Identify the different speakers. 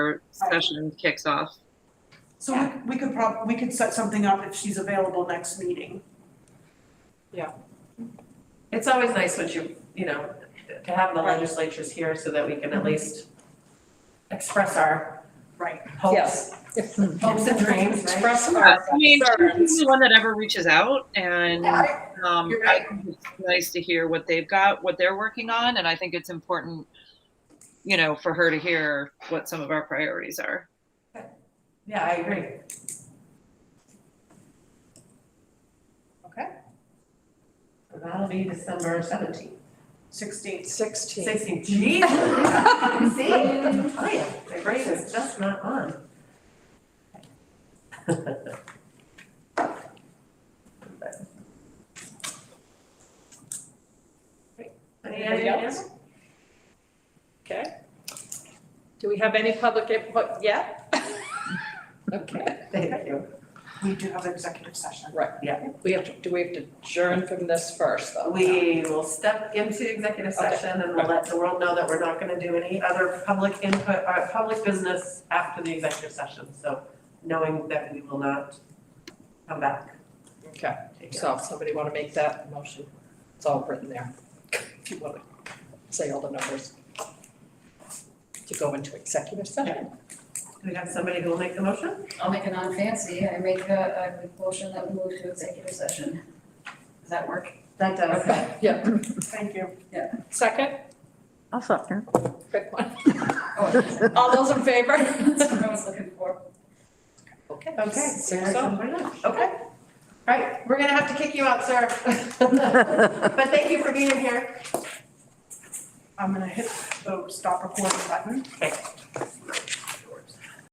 Speaker 1: our session kicks off.
Speaker 2: So we, we could prob, we could set something up if she's available next meeting.
Speaker 3: It's always nice when you, you know, to have the legislatures here so that we can at least express our
Speaker 2: Right.
Speaker 3: hopes,
Speaker 4: Hmm.
Speaker 3: hopes and dreams, right?
Speaker 5: Express them.
Speaker 1: Yeah, Uh, I mean, she's
Speaker 5: Concerns.
Speaker 1: the one that ever reaches out and,
Speaker 2: Yeah,
Speaker 1: um,
Speaker 2: You're
Speaker 1: I
Speaker 2: right.
Speaker 1: think it's nice to hear what they've got, what they're working on, and I think it's important, you know, for her to hear what some of our priorities are.
Speaker 3: Yeah, I agree.
Speaker 2: Okay.
Speaker 3: So That'll be December seventeenth,
Speaker 2: Sixteenth.
Speaker 5: Sixteen.
Speaker 3: sixteenth, geez. See, I am, my brain is just not on.
Speaker 5: Anybody else? Okay. Do we have any public input yet? Okay,
Speaker 3: Thank you.
Speaker 2: We do have executive session.
Speaker 5: right, yeah. We have to, do we have to adjourn from this first, though?
Speaker 3: We will step into executive
Speaker 5: Okay.
Speaker 3: session and we'll let the world know that we're not gonna do any other public input, or public business after the executive session, so knowing that we will not come back.
Speaker 5: Okay, so if somebody want to make that motion, it's all written there. If you want to say all the numbers. To go into executive session.
Speaker 3: Do we have somebody who will make the motion?
Speaker 6: I'll make it non-fancy, I make a, a motion that we move to executive session. Does that work?
Speaker 3: That
Speaker 5: Okay, yeah,
Speaker 2: Thank you.
Speaker 5: second,
Speaker 4: I'll second.
Speaker 5: quick one.
Speaker 6: Oh,
Speaker 5: All those in favor?
Speaker 6: that's what I was looking for.
Speaker 5: Okay.
Speaker 3: Okay.
Speaker 5: Six
Speaker 3: Eric's
Speaker 5: oh.
Speaker 3: on board now. Okay. All right, we're gonna have to kick you out, sir. But thank you for being here.
Speaker 2: I'm gonna hit the stop recording button.
Speaker 3: Okay.